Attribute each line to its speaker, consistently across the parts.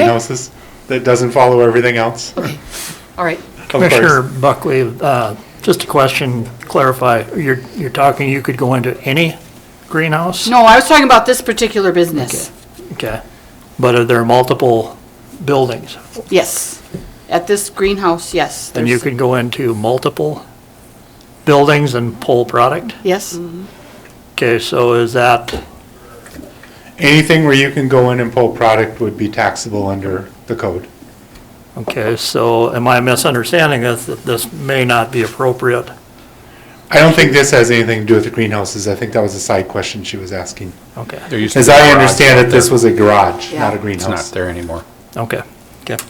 Speaker 1: greenhouses that doesn't follow everything else, of
Speaker 2: Okay, all right.
Speaker 1: course.
Speaker 3: Commissioner Buckley, uh, just a question, clarify, you're, you're talking, you could go into any greenhouse?
Speaker 2: No, I was talking about this particular business.
Speaker 3: Okay, but are there multiple buildings?
Speaker 2: Yes. At this greenhouse, yes.
Speaker 3: And you
Speaker 2: there's-
Speaker 3: could go into multiple buildings and pull product?
Speaker 2: Yes, Mm-hmm.
Speaker 3: Okay, so is that,
Speaker 1: Anything where you can go in and pull product would be taxable under the code.
Speaker 3: okay, so am I misunderstanding this, that this may not be appropriate?
Speaker 1: I don't think this has anything to do with the greenhouses. I think that was a side question she was asking.
Speaker 3: Okay,
Speaker 4: There used to
Speaker 1: As
Speaker 4: be a
Speaker 1: I
Speaker 4: garage
Speaker 1: understand
Speaker 4: out
Speaker 1: it, this
Speaker 4: there.
Speaker 1: was a garage, not a
Speaker 2: Yeah.
Speaker 4: It's not
Speaker 1: greenhouse.
Speaker 4: there anymore.
Speaker 3: okay, okay,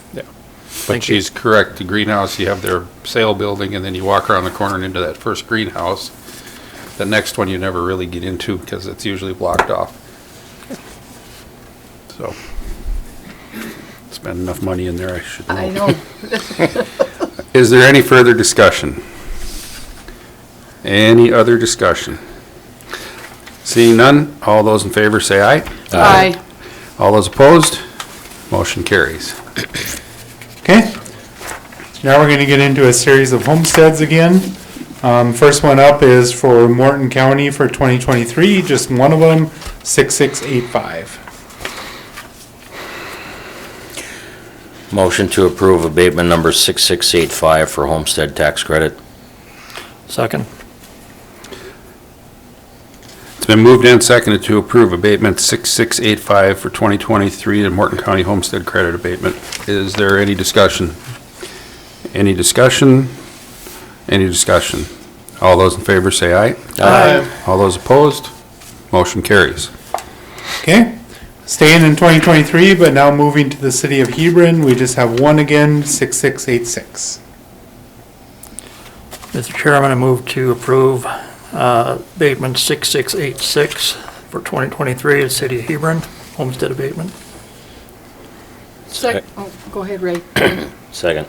Speaker 4: But she's correct, the greenhouse, you have their sale building, and then you walk around the corner and into that first greenhouse. The next one you never really get into because it's usually blocked off. So, spend enough money in there, I should
Speaker 2: I
Speaker 4: know.
Speaker 2: know.
Speaker 3: Uh,
Speaker 4: Is there any further discussion? Any other discussion? Seeing none, all those in favor say aye.
Speaker 2: Aye.
Speaker 4: All those opposed, motion carries.
Speaker 1: Okay. Now we're going to get into a series of homesteads again. Um, First one up is for Morton County for 2023, just one of them, 6685.
Speaker 5: Motion to approve abatement number 6685 for homestead tax credit.
Speaker 3: second,
Speaker 4: It's been moved and seconded to approve abatement 6685 for 2023 to Morton County Homestead Credit Abatement. Is there any discussion? Any discussion? Any discussion? All those in favor say aye. All those opposed, motion carries.
Speaker 1: Okay, staying in 2023, but now moving to the city of Hebron, we just have one again, 6686.
Speaker 3: Mr. Chairman, I move to approve uh, abatement 6686 for 2023 at City of Hebron, homestead abatement.
Speaker 2: Sec- oh, Go ahead, Ray.
Speaker 5: Second.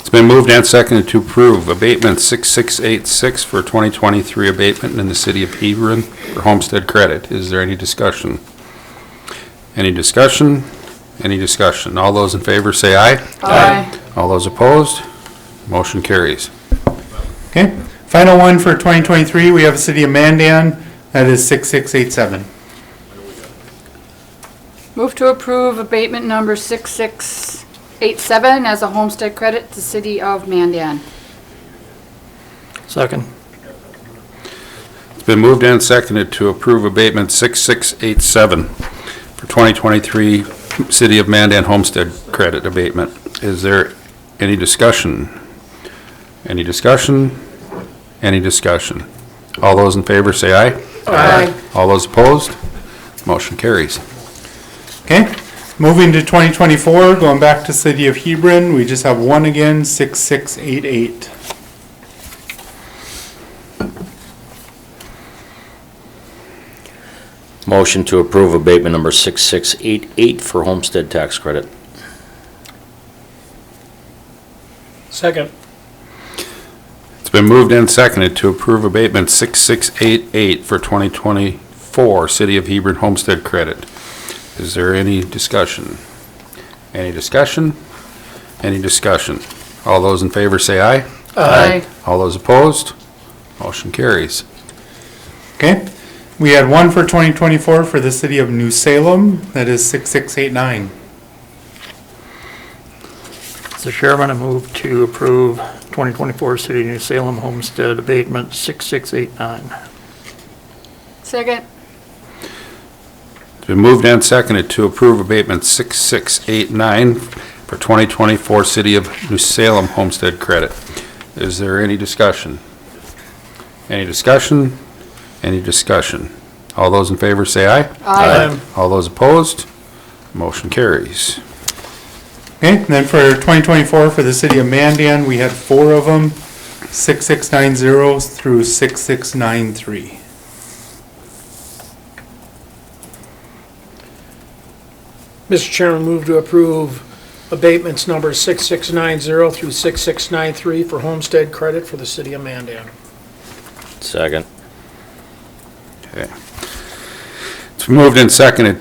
Speaker 4: It's been moved and seconded to approve abatement 6686 for 2023 abatement in the city of Hebron for homestead credit. Is there any discussion? Any discussion? Any discussion? All those in favor say aye.
Speaker 2: Aye.
Speaker 4: All those opposed? Motion carries.
Speaker 1: Okay, final one for 2023, we have the city of Mandan, that is 6687.
Speaker 2: Move to approve abatement number 6687 as a homestead credit to City of Mandan.
Speaker 3: Second.
Speaker 4: It's been moved and seconded to approve abatement 6687 for 2023 City of Mandan Homestead Credit Abatement. Is there any discussion? Any discussion? Any discussion? All those in favor say aye.
Speaker 2: Aye.
Speaker 4: All those opposed? Motion carries.
Speaker 1: Okay, moving to 2024, going back to city of Hebron, we just have one again, 6688.
Speaker 5: Motion to approve abatement number 6688 for homestead tax credit.
Speaker 6: Second.
Speaker 4: It's been moved and seconded to approve abatement 6688 for 2024 City of Hebron Homestead Credit. Is there any discussion? Any discussion? Any discussion? All those in favor say aye.
Speaker 2: Aye.
Speaker 4: All those opposed? Motion carries.
Speaker 1: Okay, we had one for 2024 for the city of New Salem, that is 6689.
Speaker 3: Mr. Chairman, I move to approve 2024 City of New Salem homestead abatement 6689.
Speaker 2: Second.
Speaker 4: It's been moved and seconded to approve abatement 6689 for 2024 City of New Salem Homestead Credit. Is there any discussion? Any discussion? Any discussion? All those in favor say aye.
Speaker 2: Aye.
Speaker 4: All those opposed? Motion carries.
Speaker 1: Okay, and then for 2024, for the city of Mandan, we had four of them, 6690 through 6693.
Speaker 6: Mr. Chairman, move to approve abatements number 6690 through 6693 for homestead credit for the city of Mandan.
Speaker 5: Second.
Speaker 4: Okay. It's It's moved and seconded